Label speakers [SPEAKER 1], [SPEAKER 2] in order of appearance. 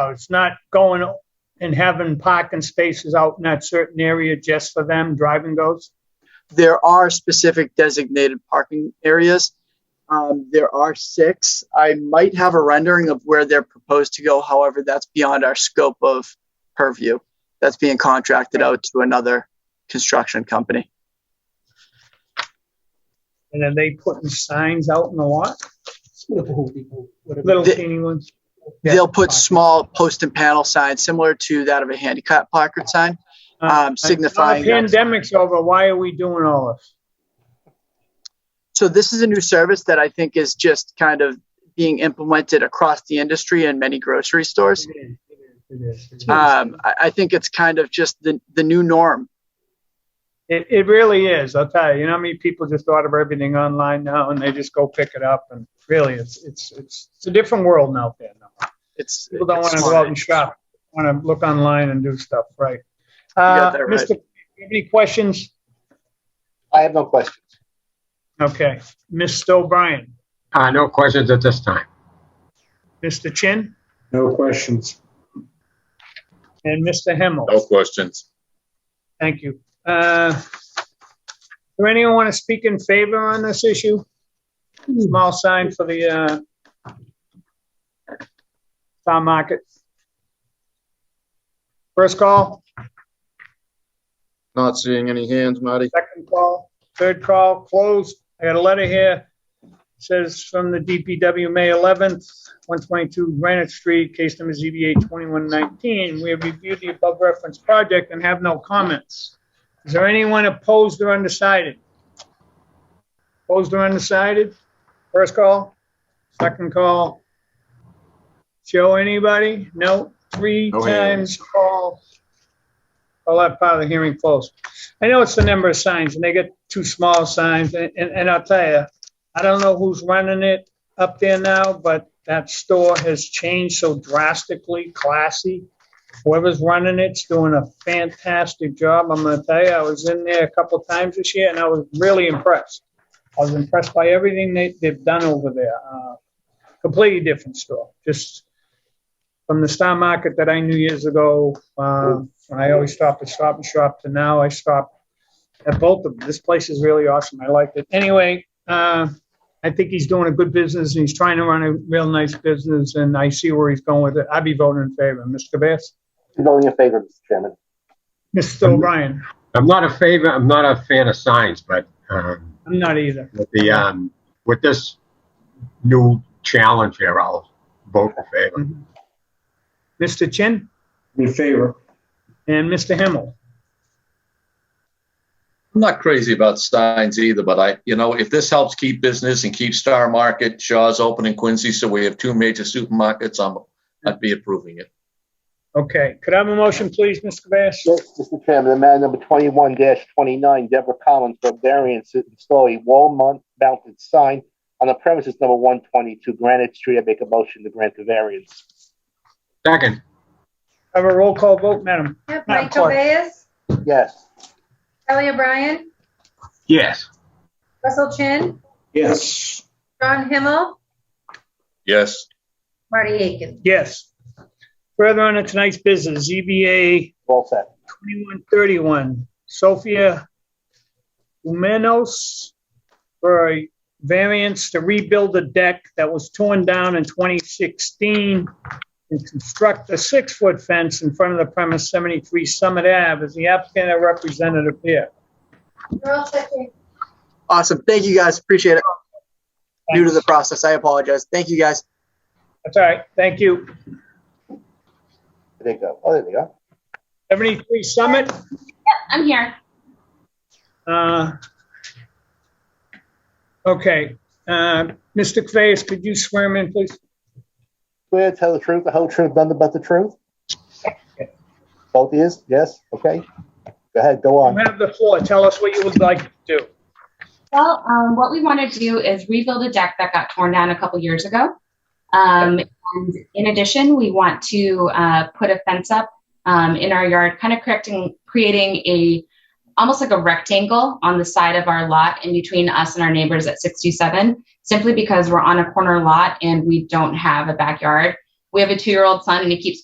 [SPEAKER 1] out. Uh, It's not going and having parking spaces out in that certain area just for them, driving goes.
[SPEAKER 2] There are specific designated parking areas. Um, there are six. I might have a rendering of where they're proposed to go. However, that's beyond our scope of purview. That's being contracted out to another construction company.
[SPEAKER 1] And then they putting signs out in the lot,
[SPEAKER 3] Little Home Depot, whatever.
[SPEAKER 1] little
[SPEAKER 2] The-
[SPEAKER 1] teeny ones.
[SPEAKER 3] Yeah,
[SPEAKER 2] They'll put
[SPEAKER 3] parking.
[SPEAKER 2] small post and panel signs similar to that of a handicap placard sign,
[SPEAKER 1] Uh,
[SPEAKER 2] um, signifying.
[SPEAKER 1] the pandemic's over. Why are we doing all this?
[SPEAKER 2] So this is a new service that I think is just kind of being implemented across the industry in many grocery stores.
[SPEAKER 1] It is, it is, it is.
[SPEAKER 2] Um, I, I think it's kind of just the, the new norm.
[SPEAKER 1] It, it really is. I'll tell you. You know how many people just order everything online now and they just go pick it up and really it's it's it's, it's a different world out there now.
[SPEAKER 2] It's
[SPEAKER 1] People don't
[SPEAKER 2] it's
[SPEAKER 1] want to go
[SPEAKER 2] smart.
[SPEAKER 1] out and shop. Want to look online and do stuff, right?
[SPEAKER 2] got
[SPEAKER 1] Uh,
[SPEAKER 2] that right.
[SPEAKER 1] Mr. you have Any questions?
[SPEAKER 4] I have no questions.
[SPEAKER 1] Okay, Ms. O'Brien,
[SPEAKER 5] Uh, no questions at this time.
[SPEAKER 1] Mr. Chin,
[SPEAKER 3] No questions.
[SPEAKER 1] and Mr. Hemmel.
[SPEAKER 6] No questions.
[SPEAKER 1] Thank you. Uh, Does anyone want to speak in favor on this issue? Small sign for the uh, farm market. First call,
[SPEAKER 6] Not seeing any hands, Marty.
[SPEAKER 1] second call, third call, closed. I got a letter here. Says from the DPW, May 11th, 122 Granite Street, case number ZBA 2119. We have reviewed the above referenced project and have no comments. Is there anyone opposed or undecided? Opposed or undecided? First call, second call. Show anybody? No, three
[SPEAKER 6] No hands.
[SPEAKER 1] times call. I'll let part of the hearing closed. I know it's the number of signs and they get two small signs and, and and I'll tell you, I don't know who's running it up there now, but that store has changed so drastically classy. Whoever's running it's doing a fantastic job. I'm gonna tell you, I was in there a couple times this year and I was really impressed. I was impressed by everything they, they've done over there. Uh, completely different store, just from the Star Market that I knew years ago. Uh, when I always stopped at Stop and Shop to now I stop at both of them. This place is really awesome. I like it. Anyway, uh, I think he's doing a good business and he's trying to run a real nice business and I see where he's going with it. I'd be voting in favor. Mr. Bass?
[SPEAKER 4] Voting in favor, Mr. Chairman.
[SPEAKER 1] Mr. O'Brien?
[SPEAKER 5] I'm not a favor, I'm not a fan of signs, but, um,
[SPEAKER 1] I'm not either.
[SPEAKER 5] with the, um, with this new challenge here, I'll vote in favor.
[SPEAKER 1] Mr. Chin
[SPEAKER 3] In favor.
[SPEAKER 1] and Mr. Himmel.
[SPEAKER 7] I'm not crazy about signs either, but I, you know, if this helps keep business and keep Star Market, Shaw's open in Quincy, so we have two major supermarkets, I'm, I'd be approving it.
[SPEAKER 1] Okay, could I have a motion, please, Mr. Bass?
[SPEAKER 4] Yes, Mr. Chairman, amendment number twenty-one twenty-nine, Deborah Collins for variance to install a wall mounted sign on the premises number one twenty-two Granite Street. I make a motion to grant the variance.
[SPEAKER 5] Second,
[SPEAKER 1] Have a roll call vote, Madam.
[SPEAKER 8] Yep,
[SPEAKER 1] Madam
[SPEAKER 8] Rachel
[SPEAKER 1] Clerk.
[SPEAKER 8] Reyes,
[SPEAKER 4] Yes.
[SPEAKER 8] Kelly O'Brien,
[SPEAKER 5] yes.
[SPEAKER 8] Russell Chin,
[SPEAKER 3] Yes.
[SPEAKER 8] John Himmel,
[SPEAKER 6] Yes.
[SPEAKER 8] Marty Aiken.
[SPEAKER 1] Yes. Further on to tonight's business, ZBA
[SPEAKER 4] All set.
[SPEAKER 1] 2131, Sophia Umenos for a variance to rebuild a deck that was torn down in 2016 and construct a six-foot fence in front of the premise 73 Summit Ave. Is the applicant a representative here?
[SPEAKER 8] You're all set, Jane.
[SPEAKER 2] Awesome. Thank you guys. Appreciate it. New to the process. I apologize. Thank you guys.
[SPEAKER 1] That's all right, thank you.
[SPEAKER 4] There they go. Oh, there they go.
[SPEAKER 1] 73 Summit?
[SPEAKER 9] I'm here.
[SPEAKER 1] uh, Okay, uh, Mr. Kveas, could you swear him in, please?
[SPEAKER 4] Swear to tell the truth, the whole truth, nothing but the truth. Both ears? Yes? Okay. Go ahead, go
[SPEAKER 1] You
[SPEAKER 4] on.
[SPEAKER 1] have the floor, tell us what you would like to do.
[SPEAKER 9] Well, um, what we want to do is rebuild a deck that got torn down a couple years ago. Um, and in addition, we want to uh, put a fence up um, in our yard, kind of correcting, creating a almost like a rectangle on the side of our lot in between us and our neighbors at 67, simply because we're on a corner lot and we don't have a backyard. We have a two year old son and he keeps